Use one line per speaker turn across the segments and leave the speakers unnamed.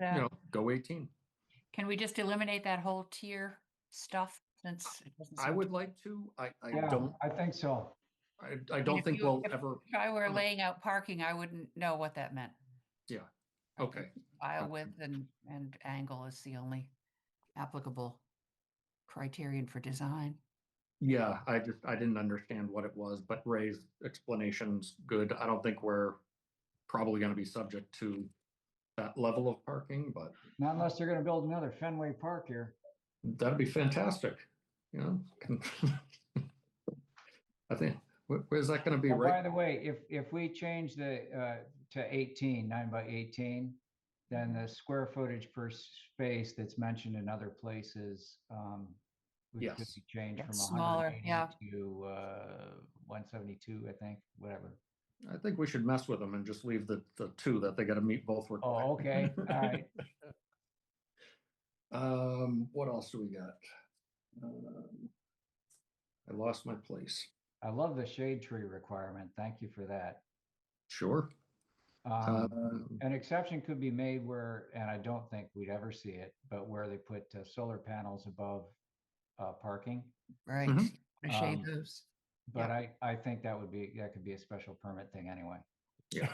you
Yeah.
know, go eighteen.
Can we just eliminate that whole tier stuff since? it doesn't
I
seem-
would like to, I, I
Yeah,
don't,
I think so.
I, I don't
if
think
you-
we'll ever,
If I were
um,
laying out parking, I wouldn't know what that meant.
Yeah,
I
okay.
think Aisle
okay.
width and, and angle is the only applicable criterion for design.
Yeah, I just, I didn't understand what it was, but Ray's explanation's good. I don't think we're probably gonna be subject to that level of parking, but
Not unless they're gonna build another Fenway Park here.
that'd be fantastic, you know? I think, where- where's that gonna be,
Oh, By
right?
the way, if, if we change the, uh, to 18, nine by eighteen, then the square footage per space that's mentioned in other places, um, would could
Yes.
be changed
Gets
from
smaller,
180
yeah.
to, uh, one seventy-two, I think, whatever.
I think we should mess with them and just leave the, the two that they gotta meet both.
Oh,
requirements.
okay, all right.
Um, what else do we got? Um, I lost my place.
I love the shade tree requirement. Thank you for that.
Sure.
Um,
Um,
An exception could be made where, and I don't think we'd ever see it, but where they put uh, solar panels above uh, parking.
Right.
Mhm.
Wanna Shade
Um,
those.
But I, I think that would be, that could be a special permit thing anyway.
yeah.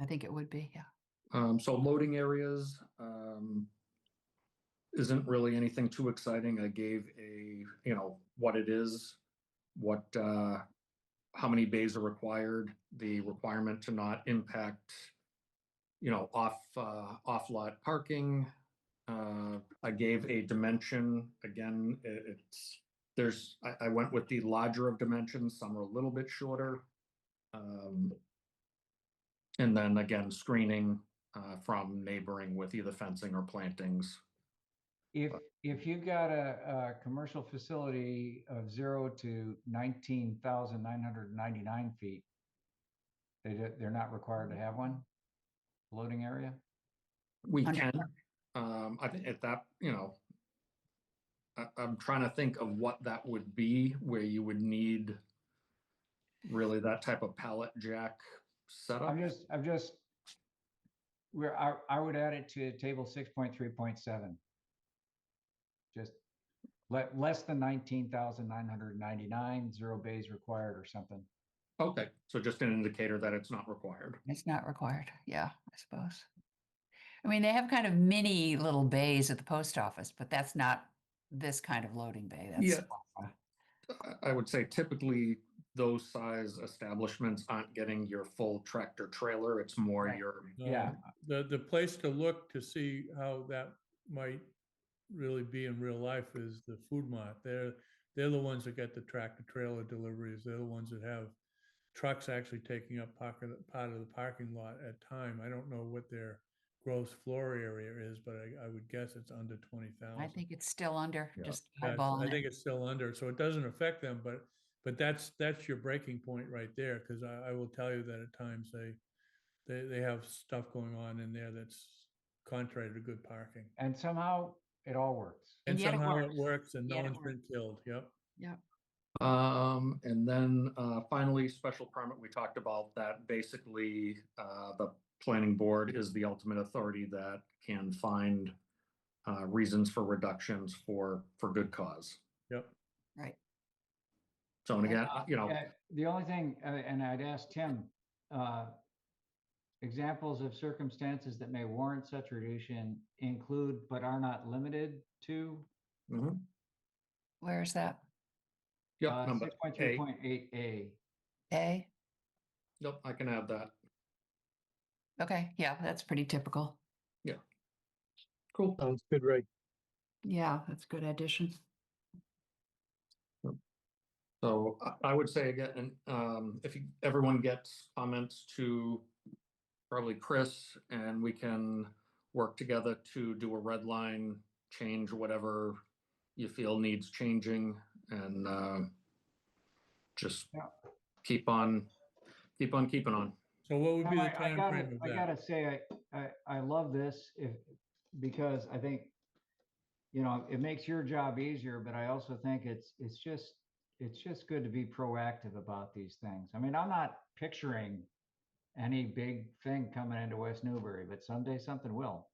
I think it would be, yeah.
Um, so loading areas, um, isn't really anything too exciting. I gave a, you know, what it is, what, uh, how many bays are required, the requirement to not impact, you know, off, uh, off lot parking. Uh, I gave a dimension, again, i- it's, there's, I, I went with the larger of dimensions, some are a little bit shorter. Um, and then again, screening uh, from neighboring with either fencing or plantings.
If, if you've got a, a commercial facility of zero to nineteen thousand nine hundred ninety-nine feet, they, don't- they're not required to have one loading area?
We
Under-
can, um, I think at that, you know, I, I'm trying to think of what that would be where you would need really that type of pallet jack setup.
I'm just, I'm just, where I, I would add it to table six point three point seven. Just let, less than nineteen thousand nine hundred ninety-nine, zero bays required or something.
Okay, so just an indicator that it's not required.
It's not required. Yeah, I suppose. I mean, they have kind of mini little bays at the post office, but that's not this kind of loading bay. That's
Yeah.
smaller.
I- I would say typically those size establishments aren't getting your full tractor trailer. It's more
Right.
your,
Yeah.
Um, The, the place to look to see how that might really be in real life is the food mart. They're, they're the ones that get the tractor trailer deliveries. They're the ones that have trucks actually taking up pocket, part of the parking lot at time. I don't know what their gross floor area is, but I, I would guess it's under twenty thousand.
I think it's still under,
Yeah.
just
Yeah, it's- I
eyeballing
think
it.
it's still under, so it doesn't affect them, but, but that's, that's your breaking point right there, because I, I will tell you that at times they, they, they have stuff going on in there that's contrary to good parking.
And somehow it all works.
And
yet it
somehow it
works.
works and no
Yet it
one's been killed, yep.
Um, and then, uh, finally, special permit, we talked about that basically, uh, the planning board is the ultimate authority that can find uh, reasons for reductions for, for good cause.
Yep.
Right.
So, and again, you know,
Uh, The only thing, uh, and I'd ask Tim, uh, examples of circumstances that may warrant such reduction include but are not limited to
mhm.
Where is that?
yeah, number
uh, six point three
A,
point eight A.
A?
yep, I can add that.
Okay, yeah, that's pretty typical.
Cool.
Sounds good, Ray.
Yeah, that's a good addition.
So I- I would say again, and, um, if you- everyone gets comments to probably Chris and we can work together to do a red line, change whatever you feel needs changing and uh, just
Yeah.
keep on, keep on keeping on.
So what would be
Now,
the
I- I gotta-
timeframe of
I
that?
gotta say, I, I, I love this if, because I think, you know, it makes your job easier, but I also think it's, it's just, it's just good to be proactive about these things. I mean, I'm not picturing any big thing coming into West Newbury, but someday something will.